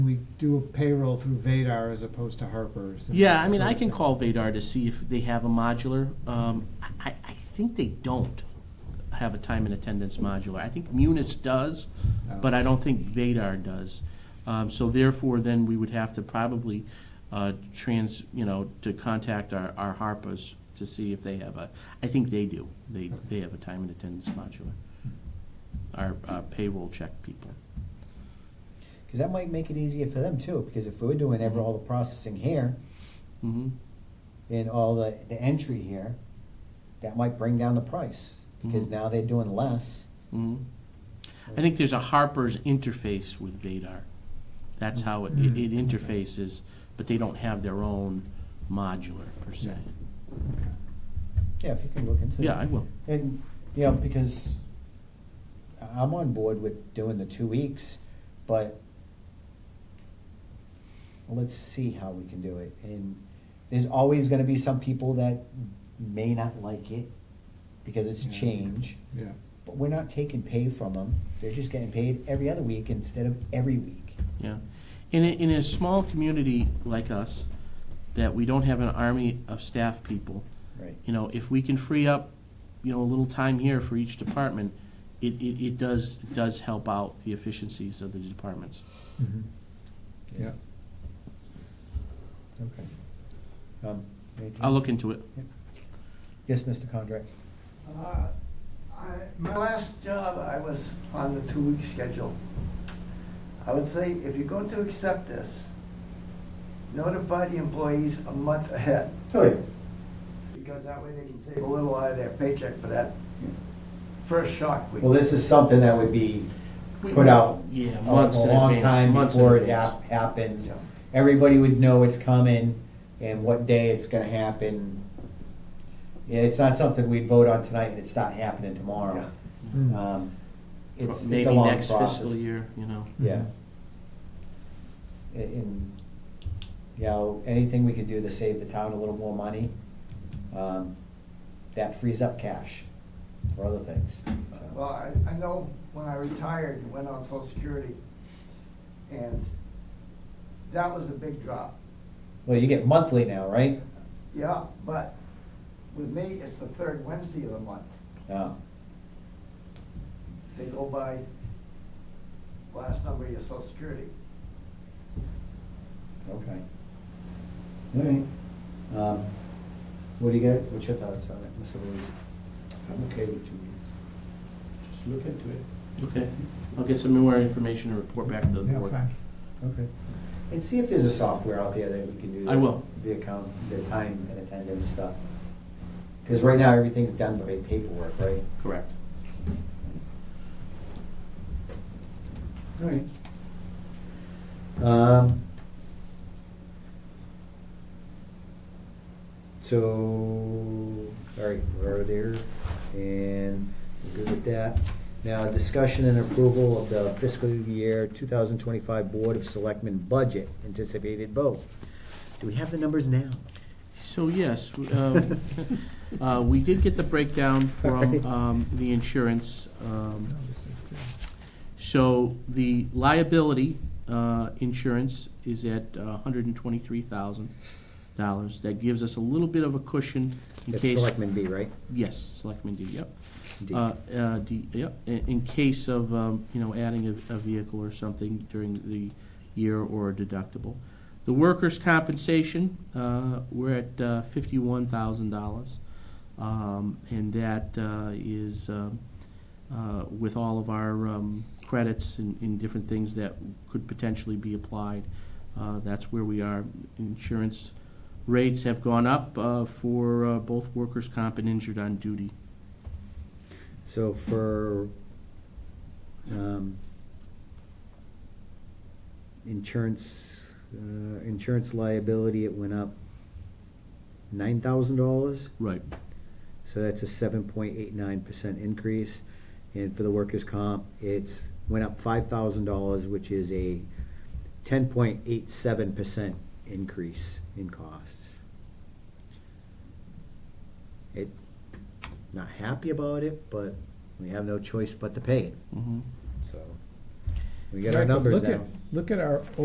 we do a payroll through Vadar as opposed to Harper's. and Yeah, that I mean, sort I of can thing. call Vadar to see if they have a modular. Um, I, I- I think they don't have a time and attendance modular. I think Munis does, but I don't think Vadar does. Um, so therefore, then we would have to probably, uh, trans, you know, to contact our, our Harpers to see if they have a, I think they do. They, they have a time and attendance modular. Our uh, payroll check people. Because that might make it easier for them too, because if we're doing ever all the processing here Mm-hmm. and all the, the entry here, that might bring down the price, because Mhm. now they're doing less. Mhm. I think there's a Harper's interface with Vadar. That's how it, it it interfaces, but they don't have their own modular per se. Yeah, if you can look into it. Yeah, I will. And, you know, because I- I'm on board with doing the two weeks, but let's see how we can do it. And there's always gonna be some people that may not like it because it's Yeah. change. Yeah, But we're not taking pay from them. They're just getting paid every other week instead of every week. Yeah. In a, in a small community like us, that we don't have an army of staff people, Right. you know, if we can free up, you know, a little time here for each department, it, it, it does, does help out the efficiencies of the departments. Mhm. yeah. Okay. Um, anything- I'll look into it. Yes, Mr. Condrey. Uh, I- My last job, I was on the two-week schedule. I would say, if you're going to accept this, notify the employees a month ahead, Oh, yeah. because that way they can save a little out of their paycheck for that first shock week. Well, this is something that would be put out Yeah, a- months a in long advance, time months in before it advance. hap- happens. Yeah. Everybody would know it's coming and what day it's gonna happen. Yeah, it's not something we'd vote on tonight and it's not happening tomorrow. Mm. Um, It's, it's a Maybe long next process. fiscal year, you know. Yeah. And- And, you know, anything we could do to save the town a little more money, um, that frees up cash for other things. so. Well, I, I know when I retired and went on social security, and that was a big drop. Well, you get monthly now, right? Yeah, but with me, it's the third Wednesday of the month. Oh, They go by last number of your social security. okay. All right. Um, What do you got, what's your thoughts on it, Mr. Louise? I'm okay with two weeks. Just look into it. Okay, I'll get some more information and report back to the Yeah, board. fine. Okay. And see if there's a software out there that we can do. I the- will. The account, the time and attendance stuff. Because right now, everything's done by paperwork, right? Correct. All right. Um. So, all right, we're there, and we're good with that. Now, discussion and approval of the fiscal year two thousand twenty-five Board of Selectmen budget, anticipated vote. Do we have the numbers now? So yes, um, uh, we did get the breakdown from Alright. um, the insurance. um, No, this is good. So the liability uh, insurance is at uh, hundred and twenty-three thousand dollars. That gives us a little bit of a cushion in It's case. Selectmen B, right? Yes, Selectman D, yep. D. Uh, uh, D, yep, in, in case of, um, you know, adding a, a vehicle or something during the year or a deductible. The workers' compensation, uh, we're at, uh, fifty-one thousand dollars. Um, and that, uh, is, um, uh, with all of our, um, credits and, and different things that could potentially be applied. Uh, that's where we are. Insurance rates have gone up, uh, for, uh, both workers' comp and injured on duty. So for, um, insurance, uh, insurance liability, it went up nine thousand dollars, Right. so that's a seven point eight nine percent increase. And for the workers' comp, it's went up five thousand dollars, which is a ten point eight seven percent increase in costs. It, not happy about it, but we have no choice but to pay it, Mm-hmm. so. We got our Right, but numbers look now. at- Look at our